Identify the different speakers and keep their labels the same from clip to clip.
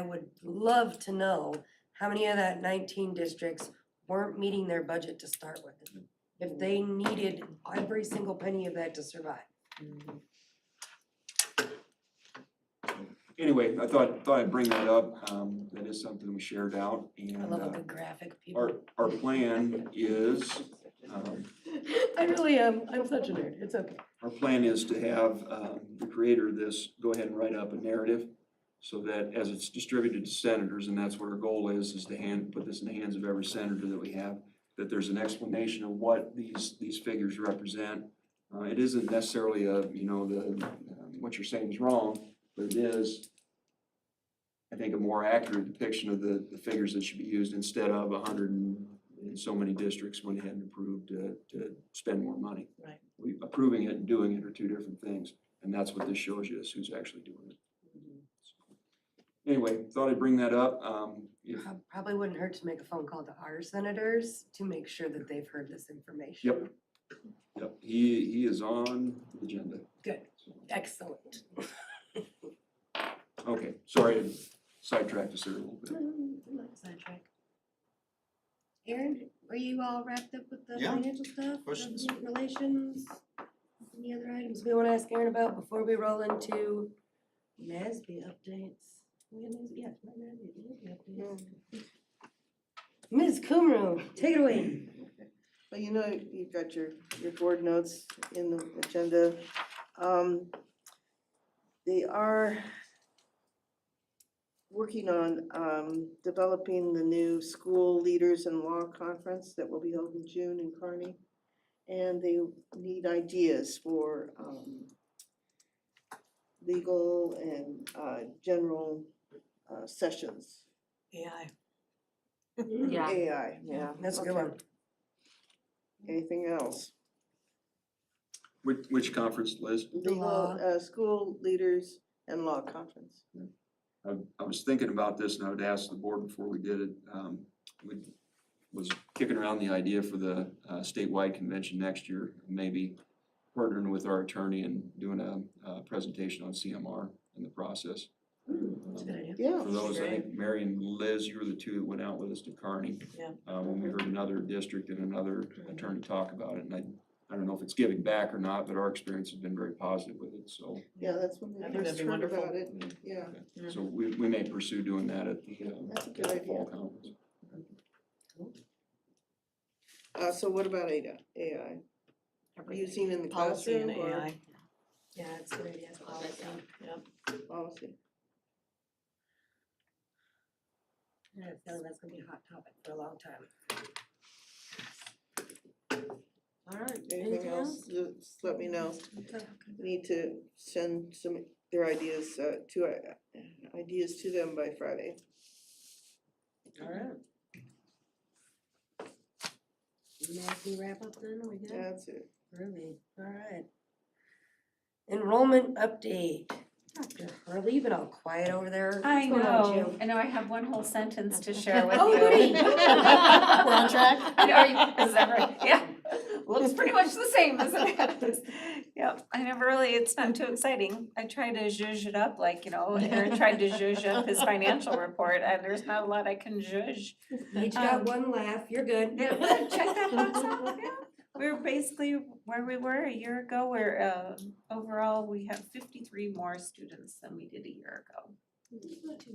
Speaker 1: I would love to know how many of that nineteen districts weren't meeting their budget to start with. If they needed every single penny of that to survive.
Speaker 2: Anyway, I thought, thought I'd bring that up. Um, that is something we shared out
Speaker 1: I
Speaker 2: and,
Speaker 1: love a
Speaker 2: uh,
Speaker 1: good graphic, people.
Speaker 2: our, our plan is, um,
Speaker 1: I really am, I'm such a nerd, it's okay.
Speaker 2: Our plan is to have um, the creator of this go ahead and write up a narrative so that as it's distributed to senators, and that's what our goal is, is to hand, put this in the hands of every senator that we have, that there's an explanation of what these, these figures represent. Uh, It isn't necessarily a, you know, the, um, what you're saying is wrong, but it is, I think, a more accurate depiction of the, the figures that should be used instead of a hundred and and so many districts went ahead and approved to, to spend more money we, approving it and doing it are two different things, and that's what this shows you, is who's actually doing it. Anyway, thought I'd bring that up, um, if-
Speaker 1: Prob- Probably wouldn't hurt to make a phone call to our senators to make sure that they've heard this information.
Speaker 2: yep, yep, he, he is on the agenda.
Speaker 1: Good, excellent.
Speaker 2: Okay, sorry, I sidetracked us there a little bit.
Speaker 1: Sidetrack. Aaron, are you all wrapped up with the
Speaker 3: Yeah.
Speaker 1: financial stuff?
Speaker 3: Questions?
Speaker 1: government Relations, any other items we wanna ask Aaron about before we roll into NASB updates? We got NASB, yeah, not NASB, NASB updates. Ms. Kumru, take it away.
Speaker 4: Well, you know, you've got your, your board notes in the agenda. Um, They are working on um, developing the new school leaders in law conference that will be held in June in Kearney. And they need ideas for um, legal and uh, general uh, sessions.
Speaker 1: AI.
Speaker 5: Yeah.
Speaker 4: AI, yeah.
Speaker 1: That's a good one.
Speaker 4: Anything else?
Speaker 2: Which, which conference, Liz?
Speaker 4: legal,
Speaker 1: law.
Speaker 4: uh, school leaders and law conference.
Speaker 2: I, I was thinking about this and I would ask the board before we did it, um, we was kicking around the idea for the uh, statewide convention next year, maybe partnering with our attorney and doing a, uh presentation on CMR in the process.
Speaker 5: Mm-hmm.
Speaker 2: Um,
Speaker 1: That's a good idea.
Speaker 4: Yeah.
Speaker 2: For those, I think Mary and Liz, you were the two that went out with us to Kearney.
Speaker 5: Yeah.
Speaker 2: Uh, when we heard another district and another attorney talk about it, and I, I don't know if it's giving back or not, but our experience has been very positive with it, so.
Speaker 4: Yeah, that's when
Speaker 5: I
Speaker 4: we
Speaker 5: think
Speaker 4: first
Speaker 5: that'd be
Speaker 4: heard
Speaker 5: wonderful.
Speaker 4: about it, yeah,
Speaker 2: So we, we may pursue doing that at the, uh,
Speaker 4: that's a
Speaker 2: at
Speaker 4: good
Speaker 2: the fall
Speaker 4: idea.
Speaker 2: conference.
Speaker 4: Uh, so what about AI, AI, using in the
Speaker 5: Policy
Speaker 4: classroom
Speaker 5: and
Speaker 4: or
Speaker 5: AI.
Speaker 1: Yeah, that's a good idea, it's policy.
Speaker 4: policy?
Speaker 1: I have a feeling that's gonna be a hot topic for a long time. All right,
Speaker 4: Anything else, just let me know, We need to send some, their ideas, uh, to, uh, ideas to them by Friday.
Speaker 1: All right. we wrap up then, are we good?
Speaker 4: That's it.
Speaker 1: Groovy, all right. Enrollment update. Dr. Hurley, you've been all quiet over there.
Speaker 6: I
Speaker 1: What's going on,
Speaker 6: know,
Speaker 1: Jim?
Speaker 6: I know, I have one whole sentence to share with you.
Speaker 1: Oh, goody.
Speaker 5: We're on track?
Speaker 6: I know, are you, is that right? Yeah, looks pretty much the same, isn't it? Yep, I never really, it's not too exciting. I try to zhuzh it up, like, you know, Aaron tried to zhuzh up his financial report, and there's not a lot I can zhuzh.
Speaker 1: You Each got
Speaker 6: Um,
Speaker 1: one laugh, you're good.
Speaker 6: Yeah, check that box off, yeah. We're basically where we were a year ago, where, uh, overall, we have fifty-three more students than we did a year ago.
Speaker 1: Not too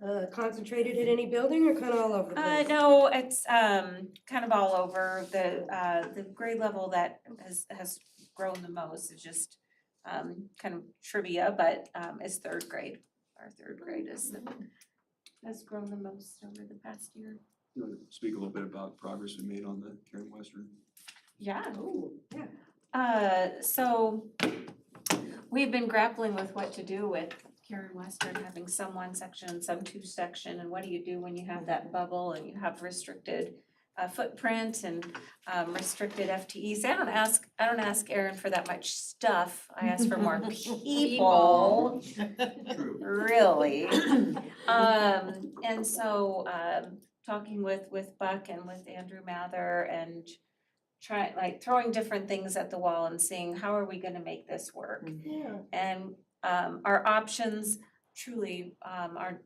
Speaker 1: bad. Uh, concentrated in any building or kind of all over the
Speaker 6: Uh,
Speaker 1: place?
Speaker 6: no, it's, um, kind of all over, the, uh, the grade level that has, has grown the most is just, um, kind of trivia, but, um, is third grade, our third grade is, the-
Speaker 1: Mm-hmm.
Speaker 6: has grown the most over the past year.
Speaker 2: You wanna Speak a little bit about progress we made on the Karen Western
Speaker 6: Yeah,
Speaker 1: Oh, yeah.
Speaker 6: Uh, so we've been grappling with what to do with Karen Western having some one section, some two section, and what do you do when you have that bubble and you have restricted uh, footprint and um, restricted FTEs? I don't ask, I don't ask Aaron for that much stuff. I ask for more people,
Speaker 3: True.
Speaker 6: really. Um, and so, um, talking with, with Buck and with Andrew Mather and try, like throwing different things at the wall and seeing how are we gonna make this work?
Speaker 4: Yeah.
Speaker 6: And, um, our options truly um, are